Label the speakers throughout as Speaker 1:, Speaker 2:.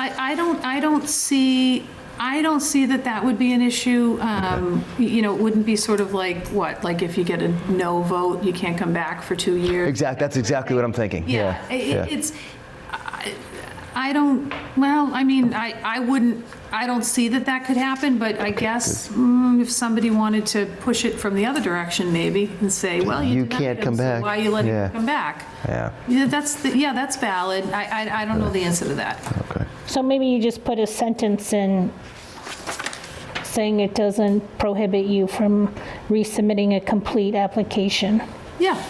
Speaker 1: I, I don't, I don't see, I don't see that that would be an issue. Um, y- You know, it wouldn't be sort of like, what, like if you get a no vote, you can't come back for two years?
Speaker 2: Exact, that's exactly what I'm thinking.
Speaker 1: Yeah, i- i-
Speaker 2: yeah.
Speaker 1: it's, I- I don't, well, I mean, I, I wouldn't, I don't see that that could happen, but I guess mm, if somebody wanted to push it from the other direction maybe and say, well,
Speaker 2: You
Speaker 1: you denied
Speaker 2: can't
Speaker 1: him,
Speaker 2: come
Speaker 1: so
Speaker 2: back.
Speaker 1: Why you letting
Speaker 2: Yeah.
Speaker 1: him come back?
Speaker 2: Yeah.
Speaker 1: Yeah, that's, the- yeah, that's valid. I, I, I don't know the answer to that.
Speaker 2: Okay.
Speaker 3: So maybe you just put a sentence in saying it doesn't prohibit you from resubmitting a complete application.
Speaker 1: Yeah,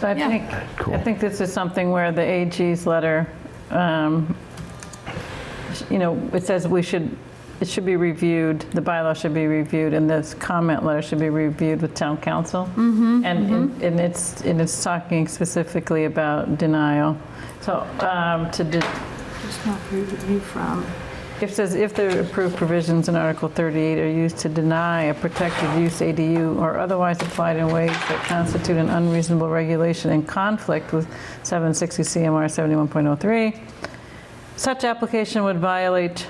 Speaker 4: So I
Speaker 1: Yeah.
Speaker 4: think,
Speaker 2: Cool.
Speaker 4: I think this is something where the AG's letter, um, you know, it says we should, it should be reviewed, the bylaw should be reviewed, and this comment letter should be reviewed with town council. And, and- and it's, and it's talking specifically about denial. So um, to, de-
Speaker 1: just not review from,
Speaker 4: it says if the approved provisions in Article 38 are used to deny a protected use ADU or otherwise applied in ways that constitute an unreasonable regulation in conflict with 760 CMR 71.03, such application would violate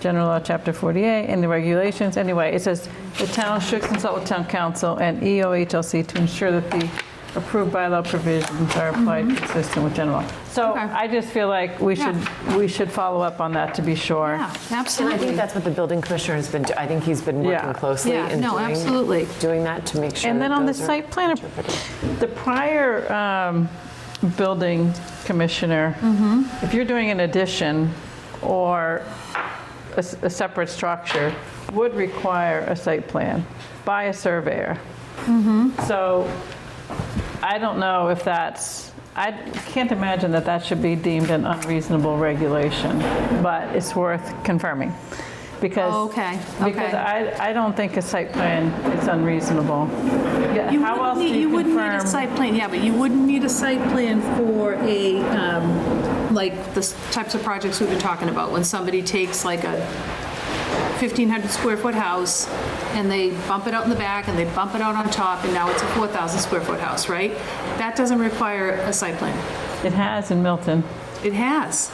Speaker 4: General Law Chapter 48 and the regulations. Anyway, it says the town should consult with town council and E EOHLC to ensure that the approved bylaw provisions are applied consistent with general law. So
Speaker 1: Mm-hmm. Okay.
Speaker 4: I just feel like we
Speaker 1: Yeah.
Speaker 4: should we should follow up on that to be sure.
Speaker 1: yeah,
Speaker 5: And I think
Speaker 1: absolutely.
Speaker 5: that's what the building commissioner has been, do- I think he's been
Speaker 4: Yeah.
Speaker 5: working closely
Speaker 1: Yeah,
Speaker 5: and
Speaker 1: no,
Speaker 5: doing-
Speaker 1: absolutely.
Speaker 5: doing that to make sure.
Speaker 4: And
Speaker 5: that
Speaker 4: then on the
Speaker 5: those are
Speaker 4: site plan,
Speaker 5: interpreted.
Speaker 4: the prior um, building commissioner, if you're doing an addition or a s- a separate structure, would require a site plan by a surveyor. So I don't know if that's, I can't imagine that that should be deemed an unreasonable regulation, but it's worth confirming. Because.
Speaker 1: Oh, Okay,
Speaker 4: Because
Speaker 1: okay.
Speaker 4: I, I don't think a site plan is unreasonable. Yeah,
Speaker 1: You
Speaker 4: How
Speaker 1: wouldn't
Speaker 4: else do
Speaker 1: need, you
Speaker 4: you
Speaker 1: wouldn't need a
Speaker 4: confirm?
Speaker 1: site plan, yeah, but you wouldn't need a site plan for a, um, like, the s- types of projects we've been talking about, when somebody takes like a 1,500 square foot house, and they bump it out in the back, and they bump it out on top, and now it's a 4,000 square foot house, right? That doesn't require a site plan.
Speaker 4: It has in Milton.
Speaker 1: It has.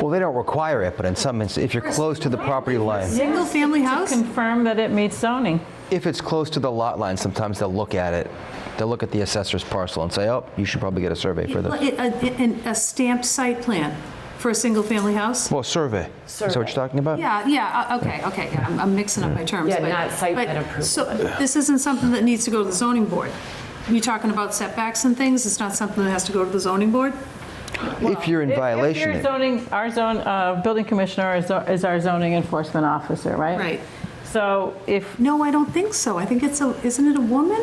Speaker 2: Well, they don't require it, but in some instances, if you're close to the property line,
Speaker 1: Single-family house?
Speaker 4: To confirm that it meets zoning.
Speaker 2: if it's close to the lot line, sometimes they'll look at it. They'll look at the assessor's parcel and say, oh, you should probably get a survey for this.
Speaker 1: A- a- an- A stamped site plan for a single-family house?
Speaker 2: Well, survey. Is that what you're talking about?
Speaker 1: Yeah, yeah, uh, okay, okay, yeah, I'm- I'm mixing up my terms.
Speaker 5: Yeah,
Speaker 1: but-
Speaker 5: not site
Speaker 1: but-
Speaker 5: plan approval.
Speaker 1: So this isn't something that needs to go to the zoning board? You're talking about setbacks and things, it's not something that has to go to the zoning board?
Speaker 2: If you're in
Speaker 4: If- if
Speaker 2: violation,
Speaker 4: you're
Speaker 2: it-
Speaker 4: zoning, our zone, uh, building commissioner is our- is our zoning enforcement officer, right?
Speaker 1: Right.
Speaker 4: So if,
Speaker 1: No, I don't think so, I think it's a, isn't it a woman?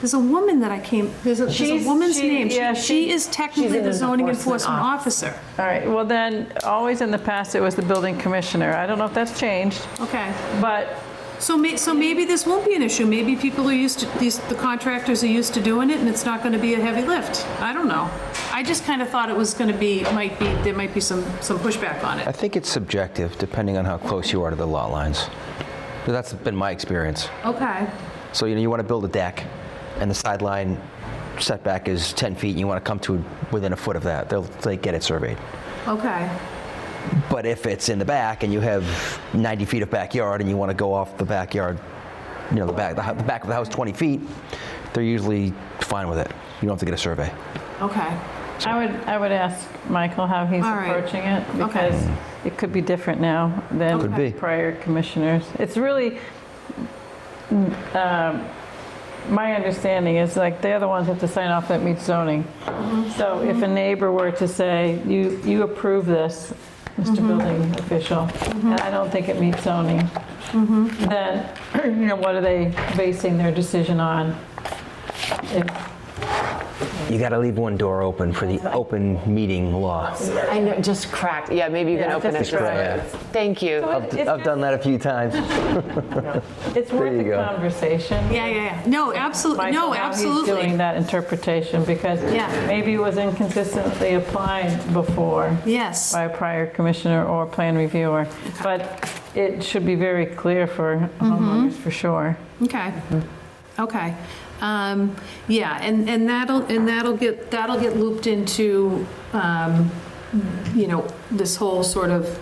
Speaker 1: There's a woman that I came, there's a, there's a
Speaker 4: She's-
Speaker 1: woman's
Speaker 4: she-
Speaker 1: name. She-
Speaker 4: yeah,
Speaker 1: She
Speaker 4: she-
Speaker 1: is
Speaker 5: She's
Speaker 1: technically
Speaker 5: an
Speaker 1: the zoning
Speaker 5: enforcement
Speaker 1: enforcement officer.
Speaker 4: all right, well then, always in the past, it was the building commissioner. I don't know if that's changed,
Speaker 1: Okay,
Speaker 4: but
Speaker 1: so may, so maybe this won't be an issue, maybe people are used to, these, the contractors are used to doing it, and it's not gonna be a heavy lift. I don't know. I just kinda thought it was gonna be, might be, there might be some, some pushback on it.
Speaker 2: I think it's subjective, depending on how close you are to the lot lines. But That's been my experience.
Speaker 1: Okay,
Speaker 2: So, you know, you want to build a deck, and the sideline setback is 10 feet, and you want to come to within a foot of that, they'll, they get it surveyed.
Speaker 1: okay.
Speaker 2: But if it's in the back and you have 90 feet of backyard and you want to go off the backyard, you know, the back, the, hou- the back of the house 20 feet, they're usually fine with it. You don't have to get a survey.
Speaker 1: Okay,
Speaker 4: I would, I would ask Michael how he's
Speaker 1: All right.
Speaker 4: approaching it,
Speaker 1: Okay.
Speaker 4: because it could be different now than
Speaker 2: Could be.
Speaker 4: prior commissioners. It's really, mm, um, my understanding is like, they're the ones that have to sign off that meets zoning.
Speaker 1: Mm-hmm.
Speaker 4: So if a neighbor were to say, you, you approve this, Mr.
Speaker 1: Mm-hmm.
Speaker 4: Building Official, and I don't think it meets zoning,
Speaker 1: Mm-hmm.
Speaker 4: then, you know, what are they basing their decision on? If-
Speaker 2: You got to leave one door open for the open meeting law.
Speaker 5: I know, just cracked, yeah, maybe you can
Speaker 4: Yeah,
Speaker 5: open it.
Speaker 4: just
Speaker 5: for
Speaker 2: crack.
Speaker 5: us. Thank you.
Speaker 4: It's just-
Speaker 2: I've done that a few times.
Speaker 4: It's worth
Speaker 2: you
Speaker 4: a
Speaker 2: go.
Speaker 4: conversation.
Speaker 1: yeah, yeah, yeah, no, absolutely,
Speaker 4: Michael,
Speaker 1: no,
Speaker 4: how He's doing
Speaker 1: absolutely.
Speaker 4: that interpretation because
Speaker 1: Yeah.
Speaker 4: maybe it was inconsistently applied before
Speaker 1: Yes,
Speaker 4: by a prior commissioner or plan reviewer. But it should be very clear for
Speaker 1: Mm-hmm.
Speaker 4: homeowners, for sure.
Speaker 1: okay, okay. Um, Yeah, and, and that'll, and that'll get, that'll get looped into, um, you know, this whole sort of